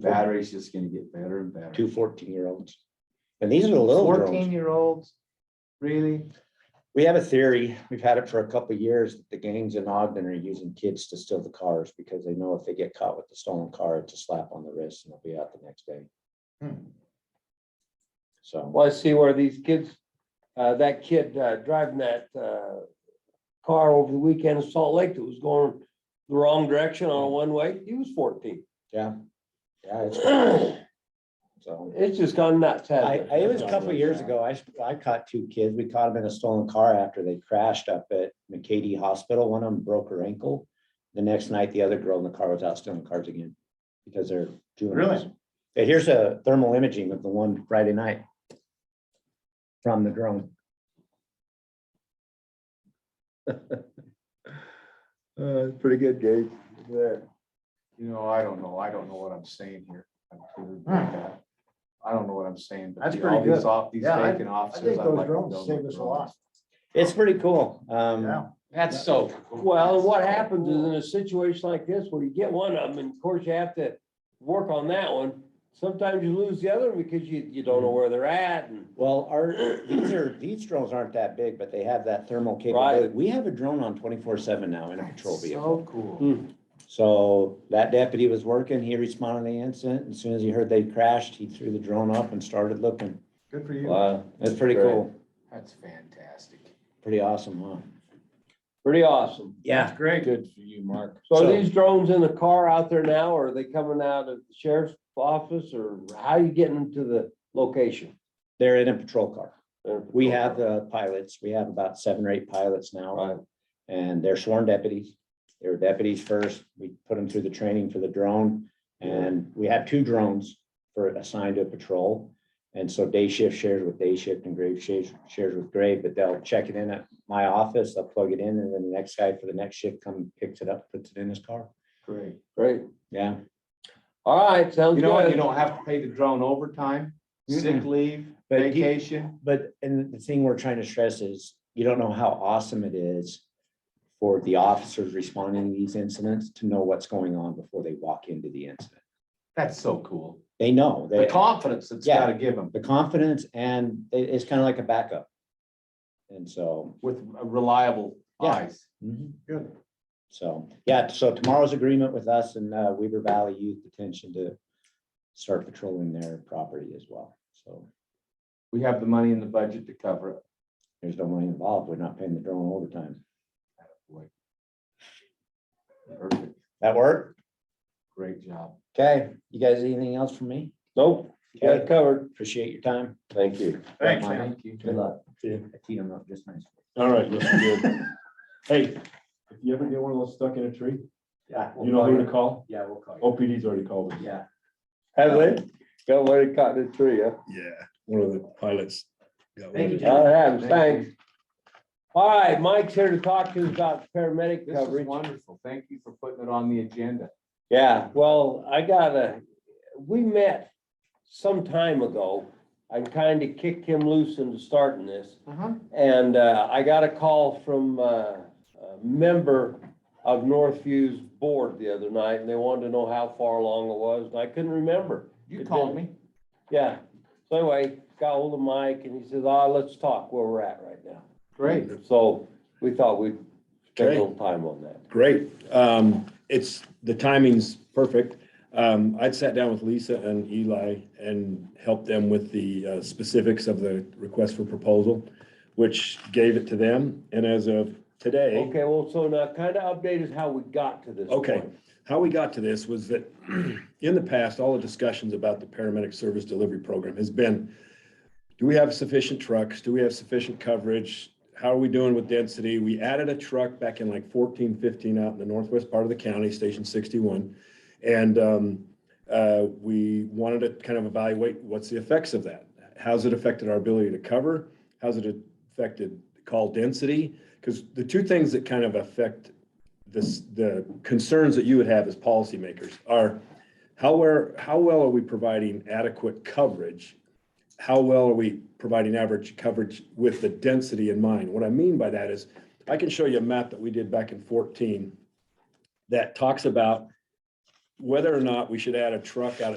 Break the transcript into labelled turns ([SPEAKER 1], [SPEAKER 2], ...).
[SPEAKER 1] battery's just gonna get better and better.
[SPEAKER 2] two 14 year olds. And these are the little
[SPEAKER 1] Fourteen
[SPEAKER 2] girls.
[SPEAKER 1] year olds, really?
[SPEAKER 2] We have a theory, we've had it for a couple of years, that the gangs in Ogden are using kids to steal the cars because they know if they get caught with the stolen car, it's a slap on the wrist and they'll be out the next day.
[SPEAKER 1] Hmm.
[SPEAKER 2] So,
[SPEAKER 3] Well, I see where these kids, uh, that kid uh, driving that, uh, car over the weekend in Salt Lake that was going the wrong direction on a one-way, he was fourteen.
[SPEAKER 2] yeah. Yeah, it's-
[SPEAKER 3] It's
[SPEAKER 2] so.
[SPEAKER 3] just gone nuts,
[SPEAKER 2] I,
[SPEAKER 3] hasn't
[SPEAKER 2] I- it
[SPEAKER 3] it?
[SPEAKER 2] was a couple of years ago, I, sp- I caught two kids, we caught them in a stolen car after they crashed up at McCady Hospital, one of them broke her ankle. The next night, the other girl in the car was out stealing cars again, because they're juveniles. Yeah, Here's a thermal imaging of the one Friday night. From the drone.
[SPEAKER 4] Uh, pretty good, Gage. There.
[SPEAKER 1] You know, I don't know. I don't know what I'm saying here. I'm totally like that. I don't know what I'm saying. but
[SPEAKER 4] That's
[SPEAKER 1] the-
[SPEAKER 4] pretty
[SPEAKER 1] all these
[SPEAKER 4] good.
[SPEAKER 1] off, these
[SPEAKER 4] Yeah, I-
[SPEAKER 1] vacant
[SPEAKER 4] I
[SPEAKER 1] offices.
[SPEAKER 4] think
[SPEAKER 1] I'd
[SPEAKER 4] those
[SPEAKER 1] like to
[SPEAKER 4] drones
[SPEAKER 1] build
[SPEAKER 4] save us a
[SPEAKER 1] drones.
[SPEAKER 4] lot.
[SPEAKER 2] It's pretty cool. Um,
[SPEAKER 4] Yeah.
[SPEAKER 1] That's so. cool.
[SPEAKER 3] Well, and what happens is in a situation like this where you get one of them, and of course you have to work on that one. Sometimes you lose the other one because you, you don't know
[SPEAKER 2] Mm-hmm.
[SPEAKER 3] where they're at and
[SPEAKER 2] well, our, these are, these drones aren't that big, but they have that thermal capability.
[SPEAKER 3] Right.
[SPEAKER 2] We have a drone on twenty-four seven now in a patrol
[SPEAKER 1] That's
[SPEAKER 2] vehicle. Hmm.
[SPEAKER 1] So cool.
[SPEAKER 3] Mm.
[SPEAKER 2] So that deputy was working, he responded to the incident, as soon as he heard they crashed, he threw the drone up and started looking.
[SPEAKER 1] Good for you.
[SPEAKER 2] Wow, that's pretty
[SPEAKER 3] Great.
[SPEAKER 2] cool,
[SPEAKER 1] That's fantastic.
[SPEAKER 2] pretty awesome, huh?
[SPEAKER 3] pretty awesome.
[SPEAKER 2] Yeah.
[SPEAKER 1] Great. Good for you, Mark.
[SPEAKER 3] So are
[SPEAKER 2] So-
[SPEAKER 3] these drones in the car out there now, or are they coming out of the sheriff's office, or how are you getting to the location?
[SPEAKER 2] They're in a patrol car, we have the pilots, we have about seven or eight pilots now,
[SPEAKER 3] Right,
[SPEAKER 2] and they're sworn deputies. They were deputies first, we put them through the training for the drone, and we have two drones for assigned to a patrol. And so day shift shares with day shift and grave shares, shares with grave, but they'll check it in at my office, I'll plug it in, and then the next guy for the next shift come picks it up, puts it in his car.
[SPEAKER 1] Great.
[SPEAKER 3] great.
[SPEAKER 2] Yeah,
[SPEAKER 3] All right, sounds
[SPEAKER 1] You know what? You
[SPEAKER 3] good.
[SPEAKER 1] don't have to pay the drone overtime, sick leave,
[SPEAKER 2] but he-
[SPEAKER 1] vacation.
[SPEAKER 2] But, and the thing we're trying to stress is, you don't know how awesome it is for the officers responding to these incidents to know what's going on before they walk into the incident.
[SPEAKER 1] That's so cool.
[SPEAKER 2] They know,
[SPEAKER 1] The
[SPEAKER 2] they,
[SPEAKER 1] confidence that's
[SPEAKER 2] Yeah.
[SPEAKER 1] gotta give them
[SPEAKER 2] the confidence and it- it's kind of like a backup. And so,
[SPEAKER 1] with reliable
[SPEAKER 2] Yeah.
[SPEAKER 1] eyes.
[SPEAKER 4] Good.
[SPEAKER 2] so, yeah, so tomorrow's agreement with us and uh, Weaver Valley Youth Detention to start patrolling their property as well. So
[SPEAKER 1] We have the money in the budget to cover it.
[SPEAKER 2] there's no money involved. We're not paying the drone overtime.
[SPEAKER 1] Boy. Perfect.
[SPEAKER 2] That work?
[SPEAKER 1] Great job.
[SPEAKER 2] Okay, you guys, anything else from me?
[SPEAKER 3] Nope, you got it covered.
[SPEAKER 2] Appreciate your time.
[SPEAKER 3] Thank you.
[SPEAKER 4] Thanks, man.
[SPEAKER 1] Thank you.
[SPEAKER 2] Good luck.
[SPEAKER 4] See
[SPEAKER 2] I
[SPEAKER 4] you.
[SPEAKER 2] teed them up just nice.
[SPEAKER 4] All right, looks good. Hey, if you ever get one of those stuck in a tree,
[SPEAKER 2] Yeah.
[SPEAKER 4] you know who to call?
[SPEAKER 2] Yeah, we'll call
[SPEAKER 4] OPD's already called us.
[SPEAKER 2] Yeah.
[SPEAKER 3] Have they? Got one that caught in the tree, huh?
[SPEAKER 5] Yeah, one of the pilots. got
[SPEAKER 1] Thank you,
[SPEAKER 5] wounded.
[SPEAKER 1] Jack.
[SPEAKER 3] All right,
[SPEAKER 1] Thank
[SPEAKER 3] thanks. All right, Mike's here to talk to us about paramedic
[SPEAKER 1] This is
[SPEAKER 3] coverage.
[SPEAKER 1] wonderful. Thank you for putting it on the agenda.
[SPEAKER 3] Yeah, well, I gotta, we met some time ago. I kind of kicked him loose into starting this.
[SPEAKER 2] Uh-huh.
[SPEAKER 3] And uh, I got a call from uh, a member of Northview's board the other night, and they wanted to know how far along it was, and I couldn't remember.
[SPEAKER 1] You
[SPEAKER 3] It
[SPEAKER 1] called me.
[SPEAKER 3] Yeah, so anyway, got hold of Mike, and he says, ah, let's talk where we're at right now.
[SPEAKER 1] Great.
[SPEAKER 3] So we thought we'd spend a
[SPEAKER 5] Okay.
[SPEAKER 3] little time on that.
[SPEAKER 5] Great. Um, it's, the timing's perfect. Um, I'd sat down with Lisa and Eli and helped them with the uh, specifics of the request for proposal, which gave it to them. And as of today,
[SPEAKER 3] Okay, well, so now kind of update us how we got to this
[SPEAKER 5] Okay.
[SPEAKER 3] point.
[SPEAKER 5] how we got to this was that in the past, all the discussions about the paramedic service delivery program has been, do we have sufficient trucks? Do we have sufficient coverage? How are we doing with density? We added a truck back in like fourteen, fifteen out in the northwest part of the county, Station sixty-one. And um, uh, we wanted to kind of evaluate what's the effects of that? How's it affected our ability to cover? How's it affected call density? Because the two things that kind of affect this, the concerns that you would have as policymakers are how where, how well are we providing adequate coverage? How well are we providing average coverage with the density in mind? What I mean by that is, I can show you a map that we did back in fourteen that talks about whether or not we should add a truck out of